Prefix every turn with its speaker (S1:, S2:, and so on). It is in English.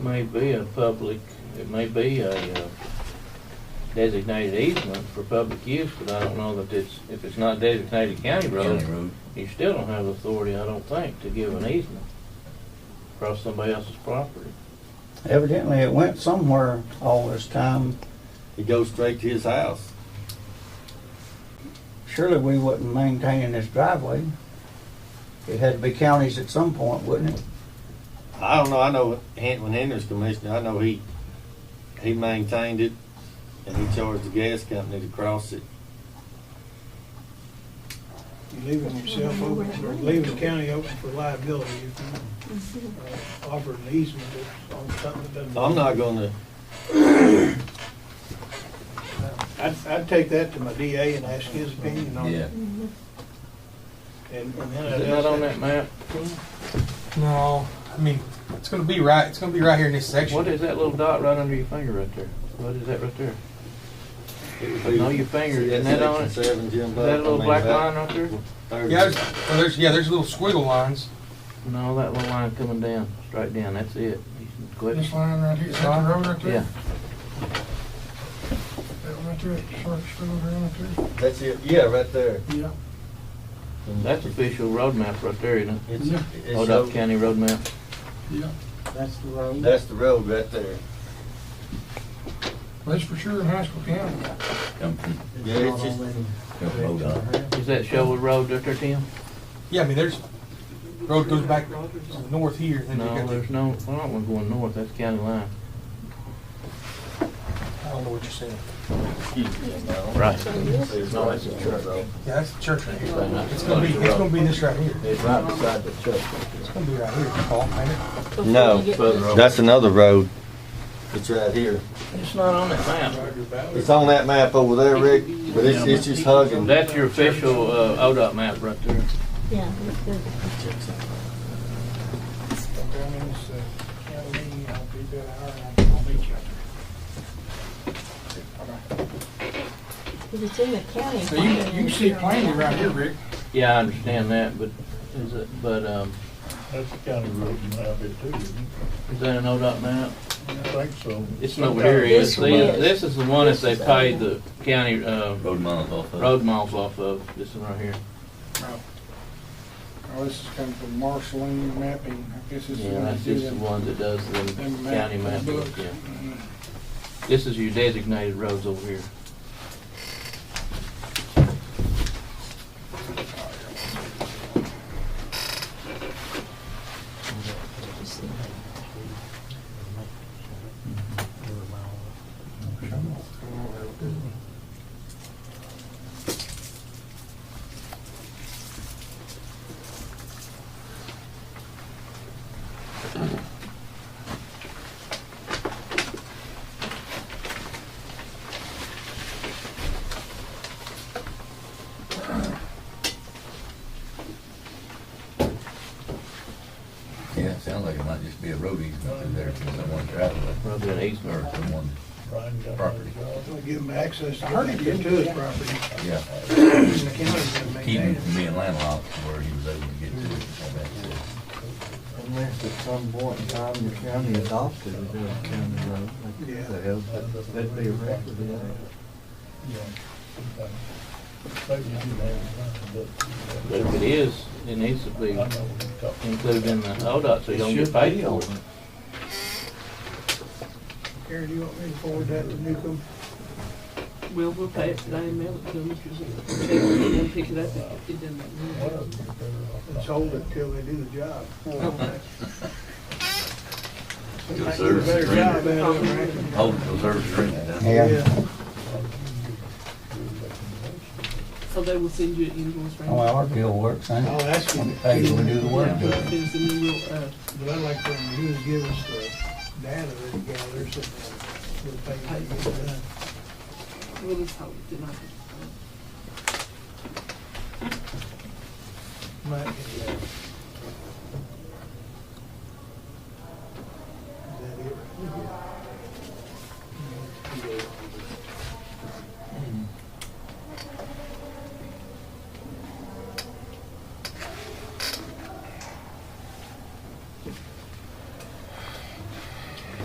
S1: may be a public, it may be a uh, designated easement for public use, but I don't know that it's, if it's not designated county
S2: County
S1: road,
S2: road.
S1: you still don't have authority, I don't think, to give an easement across somebody else's property.
S3: Evidently, it went somewhere all this time.
S4: It goes straight to his house.
S3: Surely we wasn't maintaining this driveway. It had to be counties at some point, wouldn't it?
S4: I don't know, I know Hen- when Henry's commissioner, I know he, he maintained it and he charged the gas company to cross it.
S5: You're leaving yourself open, for leaving the county open for liability if you uh, offer an easement that's on something that doesn't.
S4: I'm not gonna,
S5: I'd, I'd take that to my DA and ask his opinion on
S2: Yeah.
S5: it. And and then
S1: Is
S5: I'd
S1: it not
S5: ask
S1: on that
S5: that-
S1: map?
S6: No, I mean it's gonna be right. It's gonna be right here in this section.
S1: What is that little dot right under your finger right there? What is that right there?
S4: it
S1: I
S4: would be.
S1: know your finger,
S4: See,
S1: isn't
S4: that's
S1: that on it?
S4: section
S1: Is
S4: Seven, Jim Buck.
S1: that a
S4: I
S1: little
S4: mean,
S1: black line
S4: about
S1: right there?
S4: thirty.
S6: Yeah, there's, well, there's yeah, there's little squiggle lines.
S1: No, that little line coming down, straight down, that's it. You can quit.
S7: This line right here, is that the road right there?
S1: Yeah,
S7: That one right there, Parks Road right there?
S4: That's it, yeah, right there.
S7: Yeah.
S1: that's official road map right there, isn't it?
S4: It's, it's,
S1: Old
S4: showed-
S1: County road map.
S7: Yeah. That's the road.
S4: that's the road right there.
S7: That's for sure in Haskell County.
S2: Come from,
S4: Yeah, it's just,
S2: come from ODOT.
S1: Is that Shelwood Road right there, Tim?
S6: Yeah, I mean there's road goes back north here. And
S1: No,
S6: you got the-
S1: there's no, I don't want going north, that's county line.
S6: I don't know what you're saying.
S1: Right.
S4: it's
S1: No,
S4: right
S1: it's a
S4: there.
S6: Yeah, that's the church right here. It's gonna be it's gonna be this right here.
S2: It's right beside the church.
S6: It's gonna be right here, Paul. ain't it?
S4: No, that's another road. It's right here.
S1: It's not on that map.
S4: It's on that map over there, Rick, but it's, it's just hugging.
S1: That's your official, uh, ODOT map right there.
S8: Yeah, that's good.
S7: Down in this, uh, county, I'll be there, I'll I'll meet you.
S8: Because it's in the county.
S7: So you, you can see it plainly right here, Rick.
S1: Yeah, I understand that, but is it, but, um,
S9: That's the county road you have it too, isn't it?
S1: is that an ODOT map?
S9: I think so.
S1: It's not here, it is.
S8: This one.
S1: See, This is the one that they paid the county, uh,
S2: Road miles off of.
S1: road miles off of, this one right here.
S7: Oh, this is coming from Marceline Mapping, I guess this is.
S1: Yeah,
S7: when
S1: that's
S7: they do
S1: just the
S7: them-
S1: one that does the
S7: them map-
S1: county map,
S7: book.
S1: yeah.
S7: Mm.
S1: This is your designated roads over here.
S2: Yeah, it sounds like it might just be a road easement through there for someone traveling
S1: Probably an
S2: or
S1: easement.
S2: someone,
S9: Brian got
S2: Property.
S9: that job.
S5: I'll Give him access to get to his property.
S2: yeah,
S5: and the county's gonna
S2: keep
S5: maintain
S2: him
S5: it.
S2: from being landlocked where he was able to get to it. all that stuff.
S10: Unless at some point in time the county adopted it as a county road, like
S5: Yeah.
S10: they have, that- that'd be a record, yeah.
S9: Yeah. Maybe you didn't have it,
S1: But if it is, it needs to
S9: but I
S1: be
S9: know what you're talking
S1: included in the oh, ODOT, so you don't get paid for it.
S5: Karen, you want me to forward that to Newcomb?
S11: Well, we'll pay it today and mail it to them, because they'll they'll pick it up if it doesn't.
S9: about. Well, you're better off
S5: Let's hold it till they do the job.
S2: Good
S5: Do a
S2: service
S5: better job
S2: rendered.
S5: out there, Rick.
S2: Hold Oh, the service rendered. huh?
S3: Yeah.
S11: So they will send you an invoice, right?
S3: Oh, well, our bill works, huh?
S5: I'll ask him, but
S3: Hey, we do the work.
S11: Yeah, because then we will, uh,
S5: I like for him to do is give us the data that he gathers and we'll pay him to get it done.
S11: we'll just hope it did not.
S5: Might be, uh,